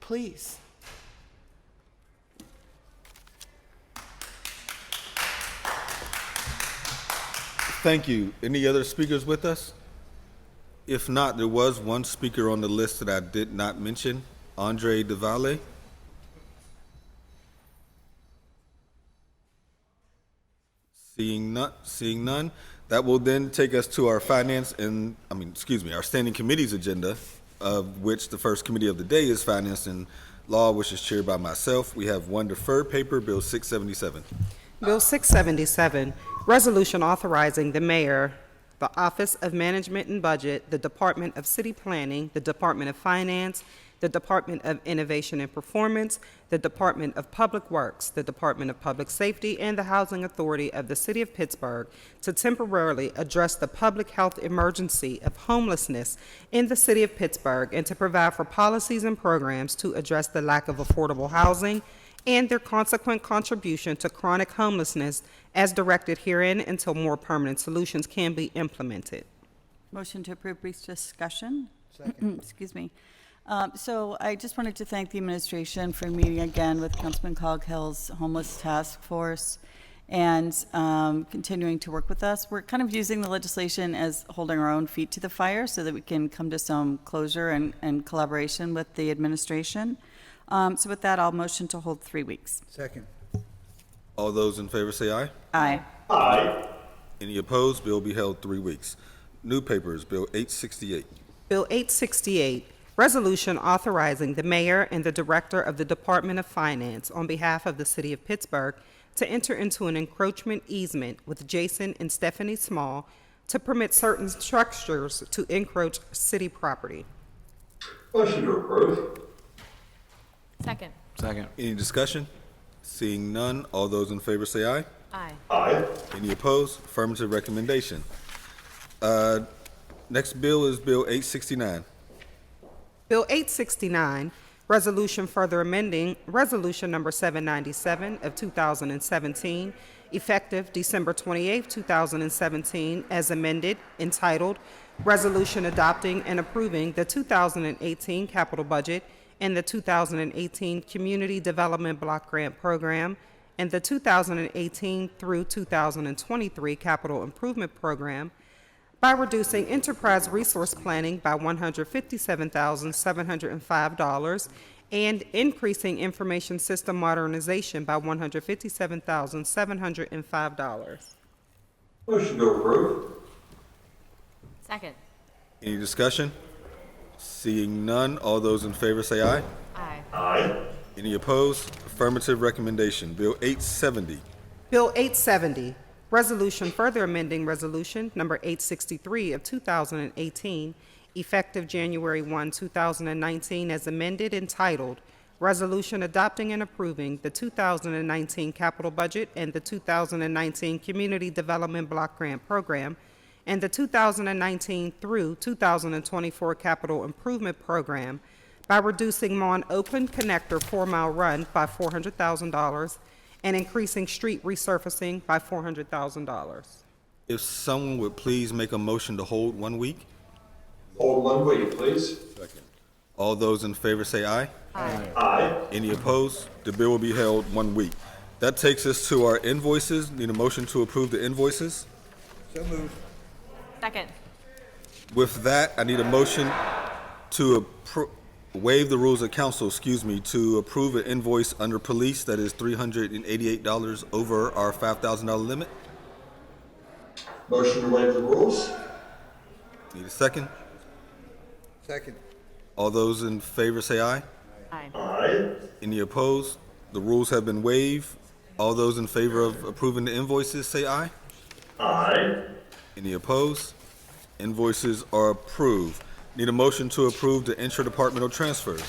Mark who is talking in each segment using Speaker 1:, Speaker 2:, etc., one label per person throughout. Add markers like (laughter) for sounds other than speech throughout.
Speaker 1: please.
Speaker 2: Thank you. Any other speakers with us? If not, there was one speaker on the list that I did not mention, Andre DeValle. Seeing none, seeing none, that will then take us to our finance and, I mean, excuse me, our standing committee's agenda, of which the first committee of the day is finance and law, which is chaired by myself. We have one deferred paper, Bill 677.
Speaker 3: Bill 677, Resolution Authorizing the Mayor, the Office of Management and Budget, the Department of City Planning, the Department of Finance, the Department of Innovation and Performance, the Department of Public Works, the Department of Public Safety, and the Housing Authority of the City of Pittsburgh to temporarily address the public health emergency of homelessness in the City of Pittsburgh and to provide for policies and programs to address the lack of affordable housing and their consequent contribution to chronic homelessness as directed herein until more permanent solutions can be implemented.
Speaker 4: Motion to approve brief discussion. Second. (clears throat) Excuse me. Um, So I just wanted to thank the administration for meeting again with Councilman Coghill's Homeless Task Force and um, continuing to work with us. We're kind of using the legislation as holding our own feet to the fire so that we can come to some closure and and collaboration with the administration. Um, So with that, I'll motion to hold three weeks.
Speaker 5: Second.
Speaker 2: All those in favor say aye.
Speaker 4: Aye.
Speaker 2: Any opposed? Bill will be held three weeks. New papers, Bill 868.
Speaker 3: Bill 868, Resolution Authorizing the Mayor and the Director of the Department of Finance on behalf of the City of Pittsburgh to enter into an encroachment easement with Jason and Stephanie Small to permit certain structures to encroach city property.
Speaker 6: Motion to approve.
Speaker 7: Second.
Speaker 8: Second.
Speaker 2: Any discussion? Seeing none, all those in favor say aye.
Speaker 7: Aye.
Speaker 6: Aye.
Speaker 2: Any opposed? Affirmative recommendation. Uh, Next bill is Bill 869.
Speaker 3: Bill 869, Resolution Further Amending Resolution Number 797 of 2017, effective December 28, 2017, as amended, entitled Resolution Adopting and Approving the 2018 Capital Budget and the 2018 Community Development Block Grant Program and the 2018 through 2023 Capital Improvement Program by reducing enterprise resource planning by $157,705 and increasing information system modernization by $157,705.
Speaker 6: Motion to approve.
Speaker 7: Second.
Speaker 2: Any discussion? Seeing none, all those in favor say aye.
Speaker 7: Aye.
Speaker 6: Aye.
Speaker 2: Any opposed? Affirmative recommendation. Bill 870.
Speaker 3: Bill 870, Resolution Further Amending Resolution Number 863 of 2018, effective January 1, 2019, as amended entitled, Resolution Adopting and Approving the 2019 Capital Budget and the 2019 Community Development Block Grant Program and the 2019 through 2024 Capital Improvement Program by reducing Mon Oakland Connector Four Mile Run by $400,000 and increasing street resurfacing by $400,000.
Speaker 2: If someone would please make a motion to hold one week.
Speaker 6: Hold one week, please.
Speaker 2: All those in favor say aye.
Speaker 6: Aye.
Speaker 2: Any opposed? The bill will be held one week. That takes us to our invoices. Need a motion to approve the invoices?
Speaker 5: So moved.
Speaker 7: Second.
Speaker 2: With that, I need a motion to appro- waive the rules of council, excuse me, to approve an invoice under police that is $388 over our $5,000 limit.
Speaker 6: Motion to waive the rules.
Speaker 2: Need a second?
Speaker 5: Second.
Speaker 2: All those in favor say aye.
Speaker 7: Aye.
Speaker 6: Aye.
Speaker 2: Any opposed? The rules have been waived. All those in favor of approving the invoices say aye.
Speaker 6: Aye.
Speaker 2: Any opposed? Invoices are approved. Need a motion to approve the intra-departmental transfers.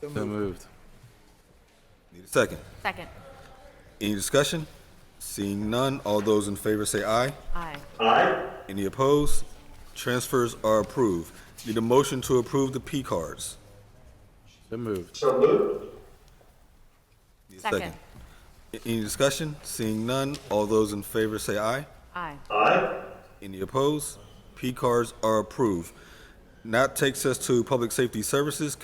Speaker 8: So moved.
Speaker 2: Need a second.
Speaker 7: Second.
Speaker 2: Any discussion? Seeing none, all those in favor say aye.
Speaker 7: Aye.
Speaker 6: Aye.
Speaker 2: Any opposed? Transfers are approved. Need a motion to approve the P cards.
Speaker 8: So moved.
Speaker 6: So moved.
Speaker 2: Need a
Speaker 7: Second.
Speaker 2: A- Any discussion? Seeing none, all those in favor say aye.
Speaker 7: Aye.
Speaker 6: Aye.
Speaker 2: Any opposed? P cards are approved. Now that takes us to Public Safety Services